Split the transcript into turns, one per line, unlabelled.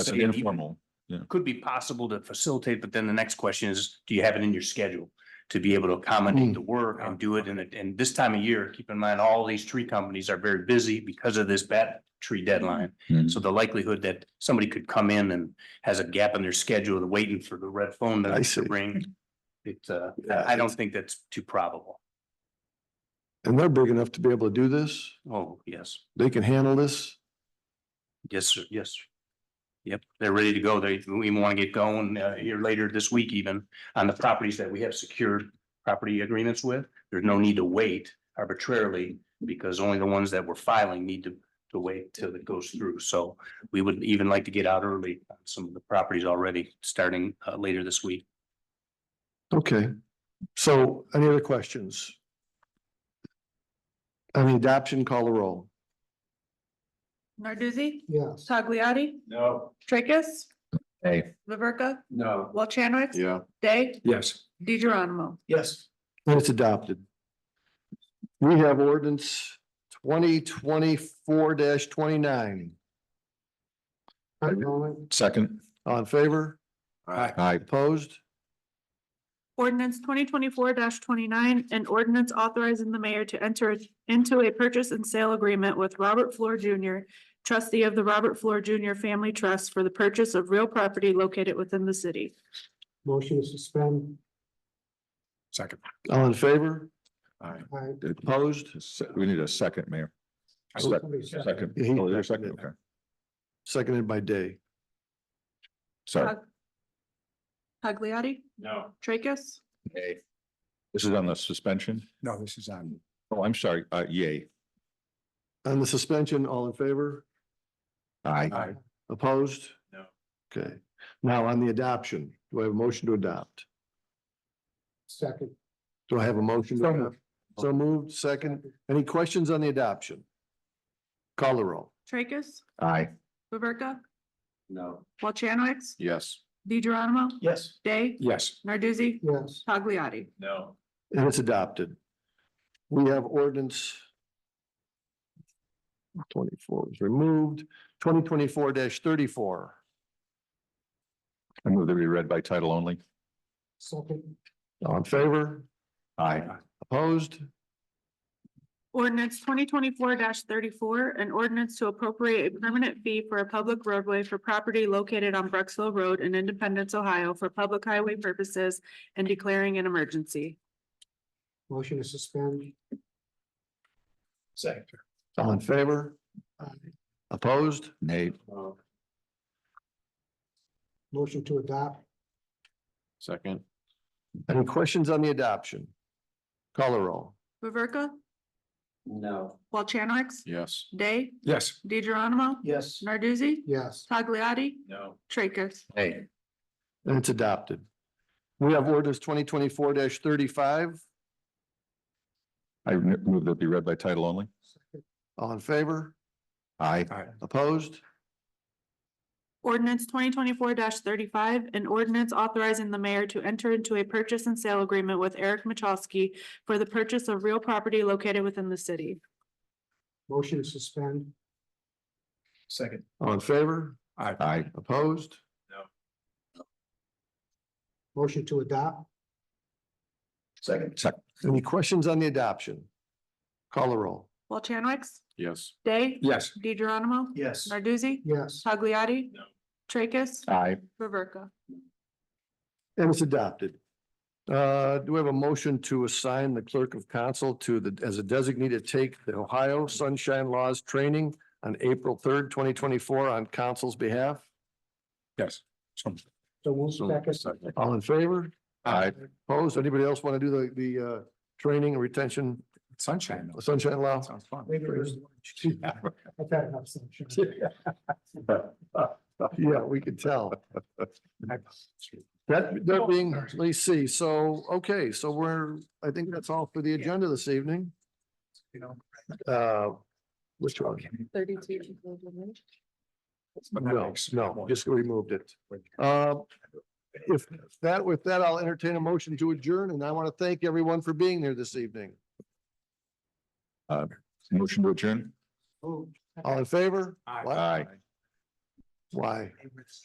That's
So
an
yeah, you-
informal.
could be possible to facilitate, but then the next question is, do you have it in your schedule? To be able to
Hmm.
accommodate the work and do it in it, and this time of year, keep in mind, all these tree companies are very busy because of this bat tree deadline.
Mm.
So the likelihood that somebody could come in and has a gap in their schedule, they're waiting for the red phone
I
to
see.
to ring. It's uh,
Yeah,
I I don't think that's too probable.
And they're big enough to be able to do this.
Oh, yes,
They can handle this.
yes, sir, yes. sir. Yep, they're ready to go. They, we want to get going uh, here later this week even on the properties that we have secured property agreements with. There's no need to wait arbitrarily because only the ones that we're filing need to, to wait till it goes through. So we would even like to get out early on some of the properties already, starting uh, later this week.
Okay. So any other questions? I mean, adoption, call the roll.
Narduzzi,
Yes.
Tagliati,
No.
Tracus,
Hey.
Laverca,
No.
Walchanwicz.
Yeah.
Day,
Yes.
Di Geronimo.
Yes.
And it's adopted. We have ordinance twenty twenty-four twenty-nine. All
Second.
in favor?
Aye.
Opposed?
Ordinance twenty twenty-four twenty-nine, an ordinance authorizing the mayor to enter into a purchase and sale agreement with Robert Floor Junior, trustee of the Robert Floor Junior Family Trust for the purchase of real property located within the city.
Motion to suspend.
Second.
All in favor?
Aye.
Aye.
Did-
Opposed?
se- We need a second, Mayor. Sec- Second.
Yeah, he-
Oh, there's a second, okay.
Seconded by Day.
Sorry.
Tagliati,
No.
Tracus,
This is on the suspension?
No, this is on,
Oh, I'm sorry. Uh, yay.
On the suspension, all in favor?
Aye.
Opposed?
No.
Okay, now on the adoption, do I have a motion to adopt? Second. Do I have a motion? to
So
adopt? So moved, second. Any questions on the adoption? Call the roll.
Tracus,
Aye.
Laverca,
No.
Walchanwicz,
Yes.
Di Geronimo,
Yes.
Day,
yes,
Narduzzi,
Yes.
Tagliati.
No.
And it's adopted. We have ordinance twenty-four is removed, twenty twenty-four thirty-four.
I move that we read by title only.
Second. All in favor?
Aye.
Opposed?
Ordinance twenty twenty-four thirty-four, an ordinance to appropriate a permanent fee for a public roadway for property located on Bruxville Road in Independence, Ohio for public highway purposes and declaring an emergency.
Motion to suspend. Second. All in favor? Opposed?
Nay.
Motion to adopt.
Second.
Any questions on the adoption? Call or roll?
Laverca,
No.
Walchanwicz,
Yes.
Day,
yes.
DeGeronimo,
Yes.
Narduzzi,
Yes.
Tagliati,
No.
Tracus.
Hey.
And it's adopted. We have orders twenty twenty-four thirty-five.
I n- move that be read by title only.
All in favor?
Aye.
Opposed?
Ordinance twenty twenty-four thirty-five, an ordinance authorizing the mayor to enter into a purchase and sale agreement with Eric Machowski for the purchase of real property located within the city.
Motion to suspend. Second. All in favor?
Aye.
Opposed?
Motion to adopt?
Second. Second.
Any questions on the adoption? Call or roll?
Walchanwicz,
Yes.
Day.
Yes.
Di Geronimo.
Yes.
Narduzzi.
Yes.
Tagliati.
No.
Tracus.
Aye.
Laverca.
And it's adopted. Uh, do we have a motion to assign the clerk of council to the, as a designated take the Ohio Sunshine Laws training on April third, twenty twenty-four on council's behalf?
Yes. So-
So move
so-
second.
second.
All in favor?
Aye.
Opposed? Anybody else want to do the, the, uh, training and retention,
Sunshine. though.
sunshine law?
Sounds fun.
Maybe there's lunch. I've had enough sunshine.
Yeah, we could tell. That, that being, let's see, so, okay, so we're, I think that's all for the agenda this evening.
You know.
Uh, which one?
Thirty-two.
But that
No,
makes-
no, just removed it. Uh, if that, with that, I'll entertain a motion to adjourn, and I want to thank everyone for being there this evening.
Motion to adjourn.
Oh.
All in favor?
Aye.
What?
Aye.
Why?